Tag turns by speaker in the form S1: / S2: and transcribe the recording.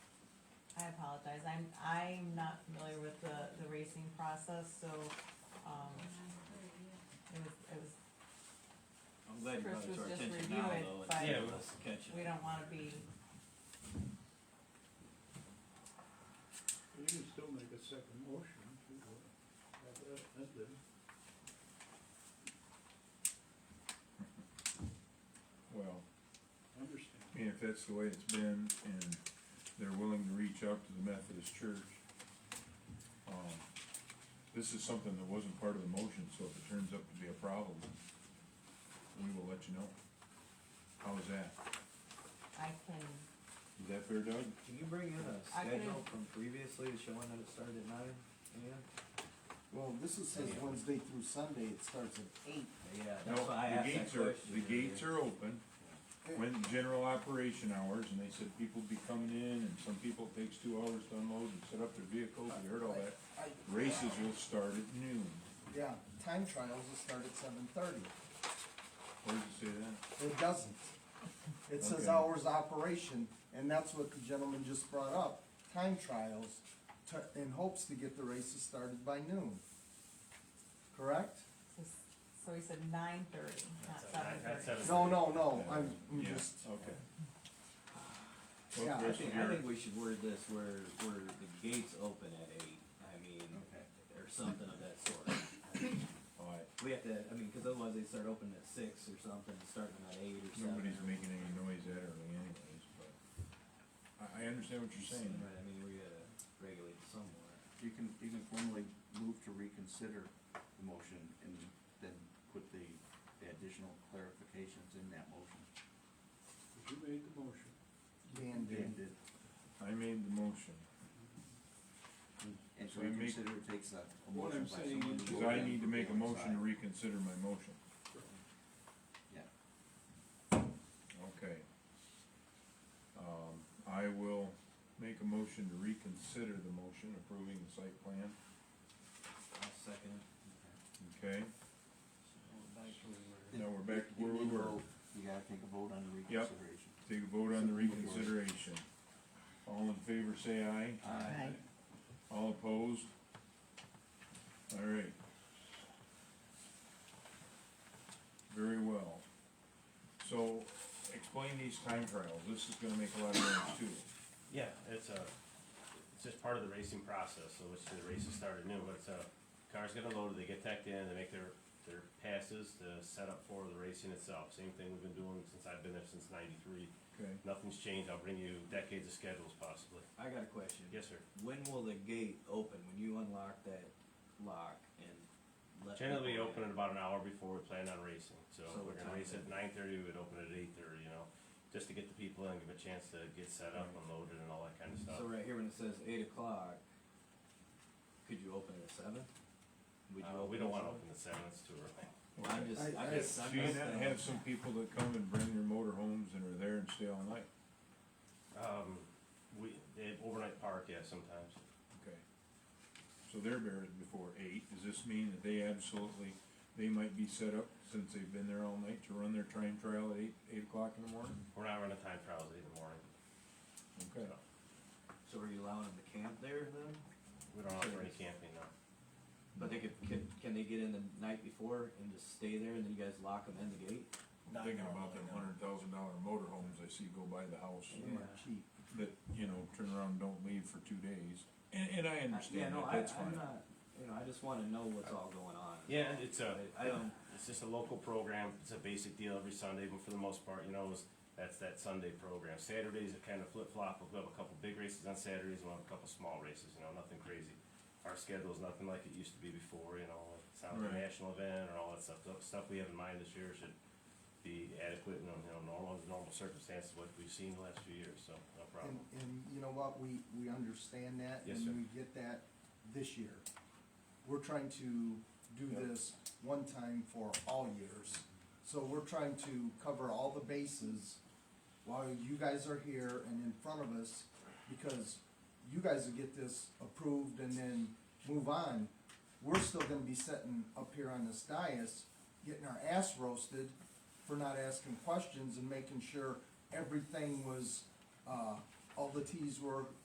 S1: apologize, I'm, I'm not familiar with the, the racing process, so, um, it was, it was,
S2: I'm glad you brought it
S1: Chris
S2: to our
S1: was just
S2: attention now,
S1: reviewing,
S2: though,
S1: but-
S2: and
S3: Yeah,
S2: let's catch
S1: we
S2: it.
S1: don't wanna be,
S4: You can still make a second motion to uh, have that ended.
S5: Well,
S4: Understand.
S5: I mean, if that's the way it's been and they're willing to reach out to the Methodist Church, um, this is something that wasn't part of the motion, so if it turns out to be a problem, we will let you know. How is that?
S1: I can,
S5: Is that fair, Doug?
S3: Can you bring in a
S1: I can-
S3: schedule from previously showing that it started at nine a.m.?
S6: Well, this is says Wednesday through Sunday, it starts at eight.
S3: Yeah,
S5: No,
S3: that's why I
S5: the
S3: asked that
S5: gates are,
S3: question.
S5: the gates are open, when general operation hours, and they said people be coming in, and some people it takes two hours to unload and set up their vehicles, we heard all that.
S6: I-
S5: Races will start at noon,
S6: Yeah, time trials will start at seven thirty.
S5: where does it say that?
S6: It doesn't. It says
S5: Okay.
S6: hours of operation, and that's what the gentleman just brought up, time trials, to, in hopes to get the races started by noon. Correct?
S1: so, so he said nine thirty, not seven thirty.
S6: No, no, no, I'm, I'm
S5: Yeah,
S6: just,
S5: Okay.
S6: Yeah,
S5: Well,
S6: I
S3: I
S5: Chris,
S3: think, I
S5: you're-
S3: think we should word this where, where the gates open at eight, I mean, or something of that sort.
S5: all right,
S3: We have to, I mean, cause otherwise they start opening at six or something, starting at eight or seven.
S5: nobody's
S3: or-
S5: making any noise that early anyways, but I, I understand what you're saying.
S3: Right, I mean, we gotta regulate somewhere.
S7: You can, you can formally move to reconsider the motion and then put the the additional clarifications in that motion.
S4: If you made the motion,
S6: Dan
S7: And
S6: did.
S7: it-
S5: I made the motion,
S7: And to
S5: So you make-
S7: reconsider takes a, a
S4: What
S7: motion
S4: I'm
S7: by
S4: saying
S7: someone.
S4: is-
S7: who
S5: cause I
S7: will
S5: need to make a
S7: then
S5: motion to
S7: decide.
S5: reconsider my motion,
S7: Yeah,
S5: okay. Um, I will make a motion to reconsider the motion approving the site plan,
S3: I'll second. it.
S5: okay? Now we're back to
S7: You
S5: where we
S7: need a
S5: were,
S7: vote. You gotta take a vote on the reconsideration.
S5: take a vote on the reconsideration. All in favor, say aye.
S7: Aye.
S5: All opposed? All right. Very well. So, explain these time trials, this is gonna make a lot of noise too.
S8: Yeah, it's a, it's just part of the racing process, so which the races started new, but it's a, cars get unloaded, they get tacked in, they make their, their passes to set up for the racing itself. Same thing we've been doing since I've been there since ninety-three.
S5: Okay,
S8: Nothing's changed, I'll bring you decades of schedules possibly.
S3: I got a question.
S8: Yes, sir.
S3: When will the gate open? When you unlock that lock and let?
S8: Generally, we
S3: people in?
S8: open it about an hour before we plan on racing, so
S3: So
S8: if we're gonna
S3: what
S8: race
S3: time
S8: at
S3: then?
S8: nine thirty, we would open it at eight thirty, you know, just to get the people in, give a chance to get set up, unloaded and all that kinda stuff.
S3: So right here when it says eight o'clock, could you open it at seven? Would you
S8: Uh, we
S3: it
S8: don't
S3: at
S8: wanna
S3: seven?
S8: open at seven, it's too early.
S3: I'm just,
S6: I-
S3: I'm
S6: I-
S3: just, I'm
S5: do you
S3: just.
S5: not
S3: um,
S5: have some people that come and bring their motor homes and are there and stay all night?
S8: Um, we, they have overnight park, yeah, sometimes.
S5: Okay. So they're buried before eight, does this mean that they absolutely, they might be set up since they've been there all night to run their time trial at eight, eight o'clock in the morning?
S8: We're not running time trials eight in the morning.
S5: Okay.
S3: So are you allowing them to camp there then?
S8: We don't offer any camping, no.
S3: But they could, can, can they get in the night before and just stay there and then you guys lock them in the gate?
S5: I'm Thinking about them hundred thousand dollar motor homes I see go by the house.
S6: They were cheap.
S5: that, you know, turn around and don't leave for two days. And, and I
S3: Yeah,
S5: understand
S3: no,
S5: that,
S3: I,
S5: that's
S3: I'm
S5: fine.
S3: not, you know, I just wanna know what's all going on.
S8: Yeah, it's a,
S3: I don't-
S8: it's just a local program, it's a basic deal every Sunday, but for the most part, you know, it's, that's that Sunday program. Saturdays are kind of flip flop, we'll have a couple big races on Saturdays, we'll have a couple small races, you know, nothing crazy. Our schedule's nothing like it used to be before, you know, it's not like a
S5: Right.
S8: national event or all that stuff, the stuff we have in mind this year should be adequate and, you know, normal, normal circumstances like we've seen the last few years, so
S6: And,
S8: no problem.
S6: and you know what, we, we understand that.
S8: Yes, sir.
S6: And we get that this year. We're trying to do
S5: Yep.
S6: this one time for all years. So we're trying to cover all the bases while you guys are here and in front of us, because you guys will get this approved and then move on. We're still gonna be sitting up here on this dais, getting our ass roasted for not asking questions and making sure everything was, uh, all the Ts were